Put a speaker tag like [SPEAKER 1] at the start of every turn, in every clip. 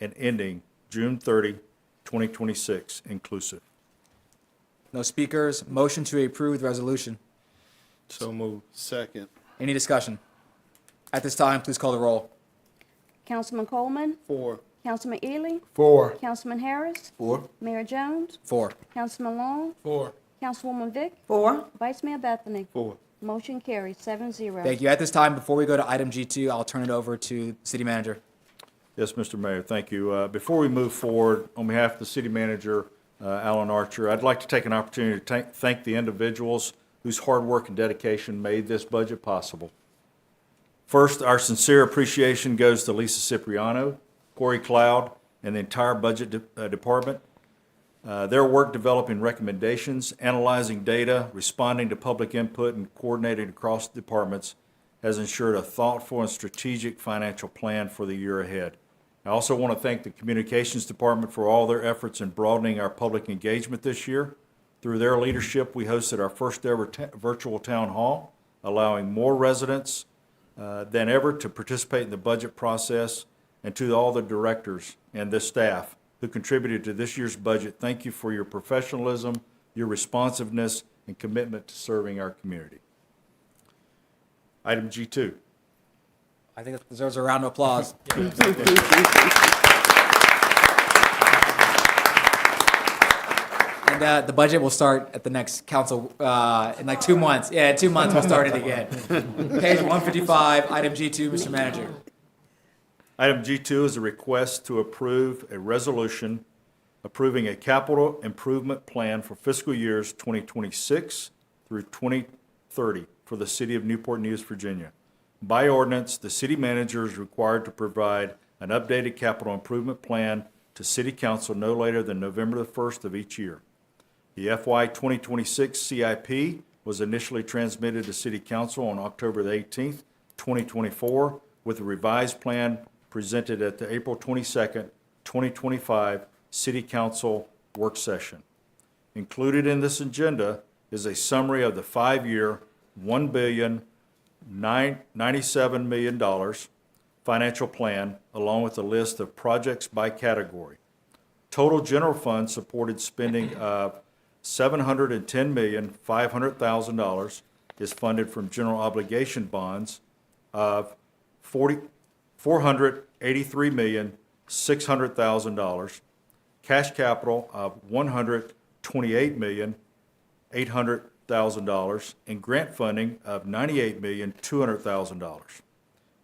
[SPEAKER 1] and ending June 30, 2026 inclusive.
[SPEAKER 2] No speakers. Motion to approve the resolution.
[SPEAKER 3] So moved. Second.
[SPEAKER 2] Any discussion? At this time, please call the roll.
[SPEAKER 4] Councilman Coleman,
[SPEAKER 3] Four.
[SPEAKER 4] Councilman Ely,
[SPEAKER 5] Four.
[SPEAKER 4] Councilman Harris,
[SPEAKER 5] Four.
[SPEAKER 4] Mayor Jones,
[SPEAKER 2] Four.
[SPEAKER 4] Councilman Long,
[SPEAKER 3] Four.
[SPEAKER 4] Councilwoman Vick,
[SPEAKER 5] Four.
[SPEAKER 4] Vice Mayor Bethany.
[SPEAKER 3] Four.
[SPEAKER 4] Motion carries seven zero.
[SPEAKER 2] Thank you. At this time, before we go to item G2, I'll turn it over to City Manager.
[SPEAKER 1] Yes, Mr. Mayor, thank you. Uh, Before we move forward, on behalf of the city manager, uh, Alan Archer, I'd like to take an opportunity to thank- thank the individuals whose hard work and dedication made this budget possible. First, our sincere appreciation goes to Lisa Cipriano, Corey Cloud, and the entire budget de- uh, department. Uh, Their work developing recommendations, analyzing data, responding to public input, and coordinating across departments has ensured a thoughtful and strategic financial plan for the year ahead. I also want to thank the Communications Department for all their efforts in broadening our public engagement this year. Through their leadership, we hosted our first-ever ta- virtual town hall, allowing more residents uh, than ever to participate in the budget process, and to all the directors and this staff who contributed to this year's budget, thank you for your professionalism, your responsiveness, and commitment to serving our community. Item G2.
[SPEAKER 2] I think it deserves a round of applause. And uh, the budget will start at the next council uh, in like two months. Yeah, in two months we'll start it again. Page 155, item G2, Mr. Manager.
[SPEAKER 1] Item G2 is a request to approve a resolution approving a capital improvement plan for fiscal years 2026 through 2030 for the city of Newport News, Virginia. By ordinance, the city manager is required to provide an updated capital improvement plan to city council no later than November the 1st of each year. The FY 2026 CIP was initially transmitted to City Council on October the 18th, 2024, with a revised plan presented at the April 22nd, 2025 City Council Work Session. Included in this agenda is a summary of the five-year, $1 billion, nine- $97 million financial plan, along with a list of projects by category. Total general fund supported spending of seven hundred and ten million, five hundred thousand dollars is funded from general obligation bonds of forty, four hundred eighty-three million, six hundred thousand dollars, cash capital of one hundred twenty-eight million, eight hundred thousand dollars, and grant funding of ninety-eight million, two hundred thousand dollars.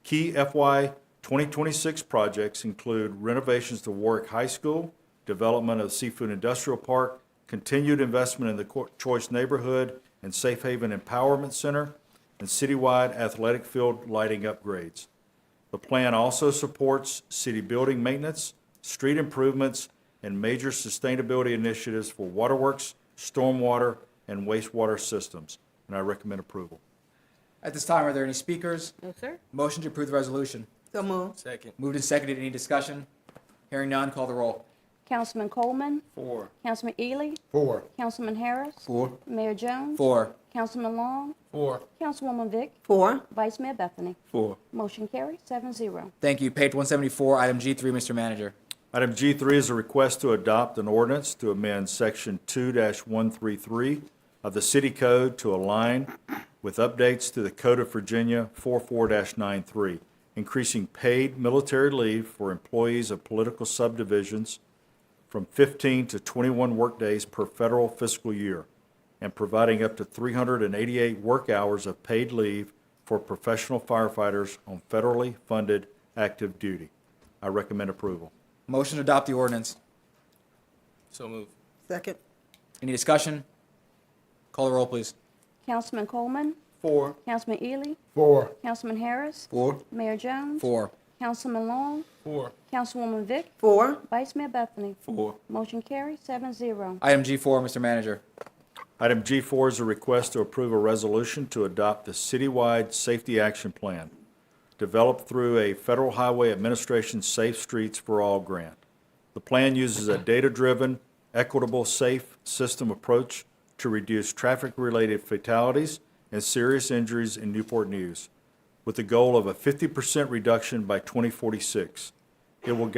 [SPEAKER 1] Key FY 2026 projects include renovations to Warwick High School, development of Seafood Industrial Park, continued investment in the Co- Choice Neighborhood and Safe Haven Empowerment Center, and citywide athletic field lighting upgrades. The plan also supports city building maintenance, street improvements, and major sustainability initiatives for waterworks, stormwater, and wastewater systems, and I recommend approval.
[SPEAKER 2] At this time, are there any speakers?
[SPEAKER 6] No, sir.
[SPEAKER 2] Motion to approve the resolution.
[SPEAKER 5] So moved.
[SPEAKER 3] Second.
[SPEAKER 2] Moved and seconded. Any discussion? Hearing none, call the roll.
[SPEAKER 4] Councilman Coleman,
[SPEAKER 3] Four.
[SPEAKER 4] Councilman Ely,
[SPEAKER 5] Four.
[SPEAKER 4] Councilman Harris,
[SPEAKER 5] Four.
[SPEAKER 4] Mayor Jones,
[SPEAKER 2] Four.
[SPEAKER 4] Councilman Long,
[SPEAKER 3] Four.
[SPEAKER 4] Councilwoman Vick,
[SPEAKER 5] Four.
[SPEAKER 4] Vice Mayor Bethany.
[SPEAKER 3] Four.
[SPEAKER 4] Motion carries seven zero.
[SPEAKER 2] Thank you. Page 174, item G3, Mr. Manager.
[SPEAKER 1] Item G3 is a request to adopt an ordinance to amend Section 2-133 of the City Code to align with updates to the Code of Virginia 44-93, increasing paid military leave for employees of political subdivisions from 15 to 21 workdays per federal fiscal year, and providing up to 388 work hours of paid leave for professional firefighters on federally funded active duty. I recommend approval.
[SPEAKER 2] Motion to adopt the ordinance.
[SPEAKER 3] So moved.
[SPEAKER 5] Second.
[SPEAKER 2] Any discussion? Call the roll, please.
[SPEAKER 4] Councilman Coleman,
[SPEAKER 3] Four.
[SPEAKER 4] Councilman Ely,
[SPEAKER 5] Four.
[SPEAKER 4] Councilman Harris,
[SPEAKER 5] Four.
[SPEAKER 4] Mayor Jones,
[SPEAKER 2] Four.
[SPEAKER 4] Councilman Long,
[SPEAKER 3] Four.
[SPEAKER 4] Councilwoman Vick,
[SPEAKER 5] Four.
[SPEAKER 4] Vice Mayor Bethany.
[SPEAKER 3] Four.
[SPEAKER 4] Motion carries seven zero.
[SPEAKER 2] Item G4, Mr. Manager.
[SPEAKER 1] Item G4 is a request to approve a resolution to adopt the citywide safety action plan developed through a Federal Highway Administration Safe Streets for All grant. The plan uses a data-driven, equitable, safe system approach to reduce traffic-related fatalities and serious injuries in Newport News, with the goal of a 50% reduction by 2046. It will